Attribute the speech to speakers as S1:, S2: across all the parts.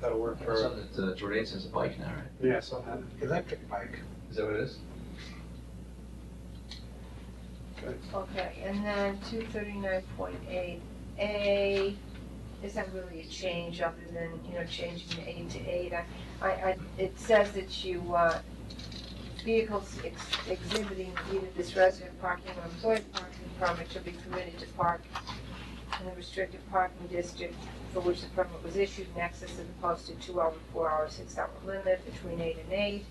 S1: that'll work for,
S2: Something that uh, Jordan has a bike now, right?
S1: yeah, so I have an electric bike.
S2: Is that what it is?
S3: Okay, and then two thirty-nine point eight A, is that really a change other than, you know, changing the eight to eight? I, I, I- it says that you, uh, vehicles ex- exhibiting either this resident parking or employee parking permit shall be permitted to park in the restricted parking district for which the permit was issued in excess of the posted two-hour, four-hour, six-hour limit between eight and eight,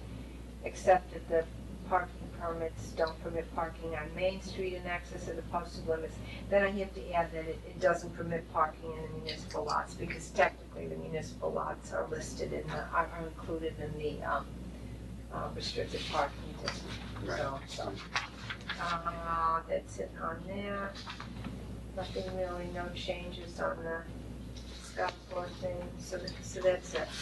S3: except that the parking permits don't permit parking on Main Street in access of the posted limits. Then I have to add that it, it doesn't permit parking in the municipal lots, because technically the municipal lots are listed in the, are are included in the, um, uh, restricted parking district, so.
S1: So,
S3: Uh, that's it on there. Nothing really, no changes on the scuffboard thing, so that, so that's it.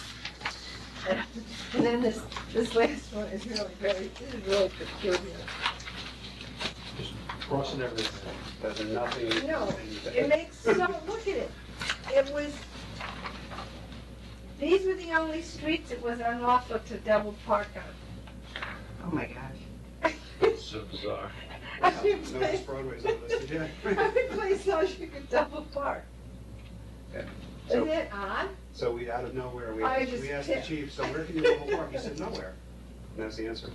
S3: And then this, this last one is really very, this is really peculiar.
S1: Crossing everything, there's nothing.
S3: No, It makes, so, look at it, it was, these were the only streets it was unlawful to double park
S4: Oh my gosh.
S3: on.
S2: So bizarre.
S3: Every
S1: No, this
S3: place,
S1: Broadway's not listed yet.
S3: every place else you could double park.
S1: Yeah.
S3: Isn't it odd?
S1: So we, out of nowhere, we,
S3: I
S1: we
S3: just
S1: asked the
S3: can't.
S1: chief, so where can you go park? He said, nowhere. And that's the answer.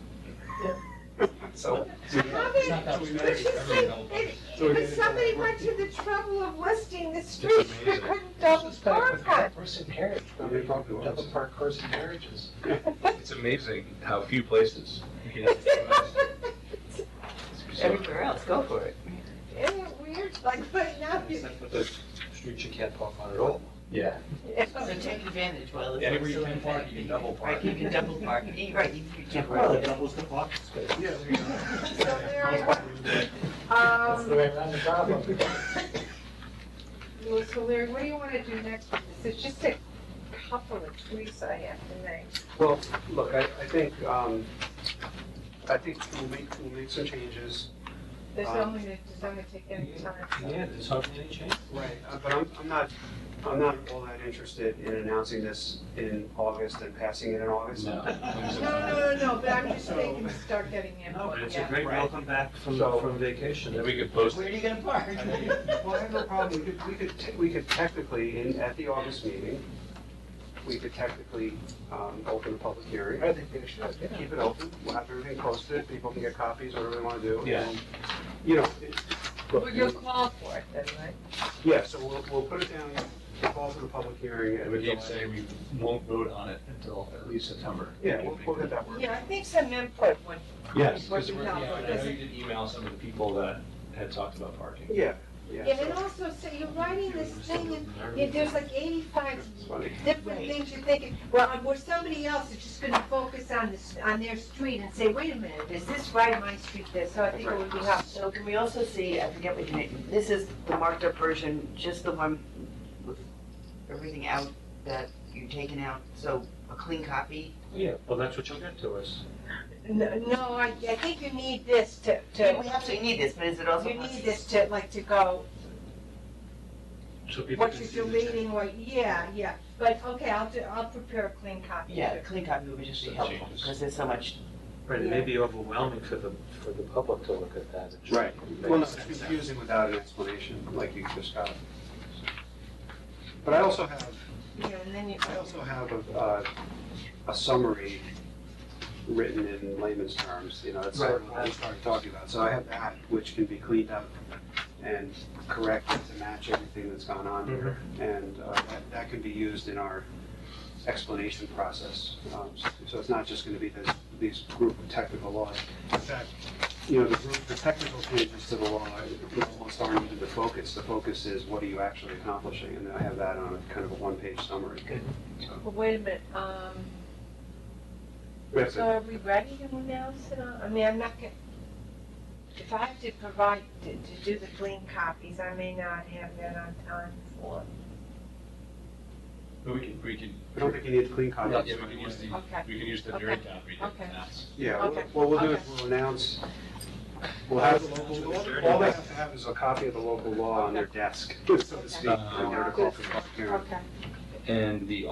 S1: So. so we-
S3: How many-
S1: so we
S3: But
S1: managed
S3: you
S1: everything.
S3: see, it-
S1: So we
S3: But
S1: did it.
S3: somebody went to the trouble of listing the streets that
S2: amazing.
S3: couldn't double park on.
S5: Horse and carriage,
S1: I mean, it probably was.
S5: double park horse and carriages.
S2: It's amazing how few places. you can have it.
S3: Isn't
S2: It's bizarre.
S4: Everywhere else, go for it.
S3: it weird, like, right now, you,
S5: Except for the streets you can't park on at all.
S2: Yeah.
S4: So take advantage while it's.
S5: Anywhere you
S4: still
S5: can
S4: in
S5: park,
S4: effect.
S5: you can double park.
S4: Right, you can double park, You- right, you you can't.
S5: Well, it doubles the parking space.
S1: Yeah, there you go.
S3: so there I was.
S5: That's the
S3: Um,
S5: way around the problem.
S3: well, so Larry, what do you wanna do next with this? It's just a couple of tweaks I have to make.
S1: Well, look, I, I think, um, I think we'll make, we'll make some changes.
S3: There's
S1: Um,
S3: only, there's only take any time.
S5: Uh, Yeah, there's hardly any change.
S1: Right. Uh, But I'm, I'm not, I'm not all that interested in announcing this in August and passing it in August.
S3: No,
S2: No.
S3: no, no, no, but I'm just thinking, to start getting
S5: No, but
S3: input,
S5: it's a
S3: yeah.
S5: great welcome back from,
S1: So-
S5: from vacation.
S2: Then we could post
S4: Where are
S2: it.
S4: you gonna park?
S1: I mean, Well, I have no problem, we could, we could, te- we could technically, in, at the August meeting, we could technically, um, open the public hearing. I think they should. Keep it open, we'll have everything posted, people can get copies, whatever they wanna do.
S2: Yeah.
S1: and, You know, it-
S3: Well, you'll call for it then, right?
S1: yeah, so we'll, we'll put it down, we'll call for the public hearing. and
S2: And we can say we won't vote on it until at least September.
S1: Yeah, we'll, we'll get that work.
S3: Yeah, I think some input would
S2: Yes,
S3: What
S2: because
S3: we
S2: we're,
S3: have
S2: yeah,
S3: on
S2: I know
S3: this.
S2: you did email some of the people that had talked about parking.
S1: Yeah, yeah.
S3: Yeah, and also, so you're writing this thing, and yeah, there's like eighty-five
S1: It's funny.
S3: different
S4: Right.
S3: things you're thinking, well, where somebody else is just gonna focus on this, on their street and say, wait a minute, is this right, my street this, so I think it would be helpful.
S4: So can we also see, I forget what you name, this is the marked up version, just the one with everything out that you've taken out, so a clean copy?
S5: Yeah, well, that's what you'll get to us.
S3: No, no, I, I think you need this to,
S4: Yeah,
S3: to,
S4: We absolutely need this, but is it also?
S3: you need this to, like, to go,
S5: So people
S3: what
S5: can see
S3: you're
S5: the change.
S3: deleting, what, yeah, yeah, but, okay, I'll do, I'll prepare a clean copy.
S4: Yeah, a clean copy would just be
S2: Some
S4: helpful,
S2: changes.
S4: because there's so much,
S5: Right, it may be overwhelming for the, for the public to look at that. It should
S1: Right.
S5: make
S1: Well, no, it's
S5: sense.
S1: confusing without an explanation, like you just got. But I also have,
S3: Yeah, and then you.
S1: I also have a, uh, a summary written in layman's terms, you know, that's sort of what we started talking about. So I have that, which can be cleaned up and corrected to match everything that's gone on
S5: Mm-hmm.
S1: here. And uh, that, that can be used in our explanation process. Um, s- So it's not just gonna be this, these group of technical laws. In fact, you know, the group, the technical changes to the law almost aren't even the focus. The focus is what are you actually accomplishing? And I have that on a kind of a one-page summary.
S3: Well, wait a minute, um,
S1: We have
S3: so
S1: to-
S3: are we ready to announce it on, I mean, I'm not gonna, if I have to provide, to, to do the clean copies, I may not have that on time for,
S2: But we can, we can,
S1: I don't think you need clean
S2: yeah,
S1: comments.
S2: we can use the,
S3: okay.
S2: we can use the
S3: Okay.
S2: direct copy to
S3: Okay.
S2: announce.
S1: Yeah,
S3: Okay.
S1: what- what we'll do
S3: Okay.
S1: is we'll announce, we'll have, the local- all they have to have is a copy of the
S2: Uh,
S1: local law on their desk, so to speak, in order to call for public hearing.
S3: Okay.
S2: And the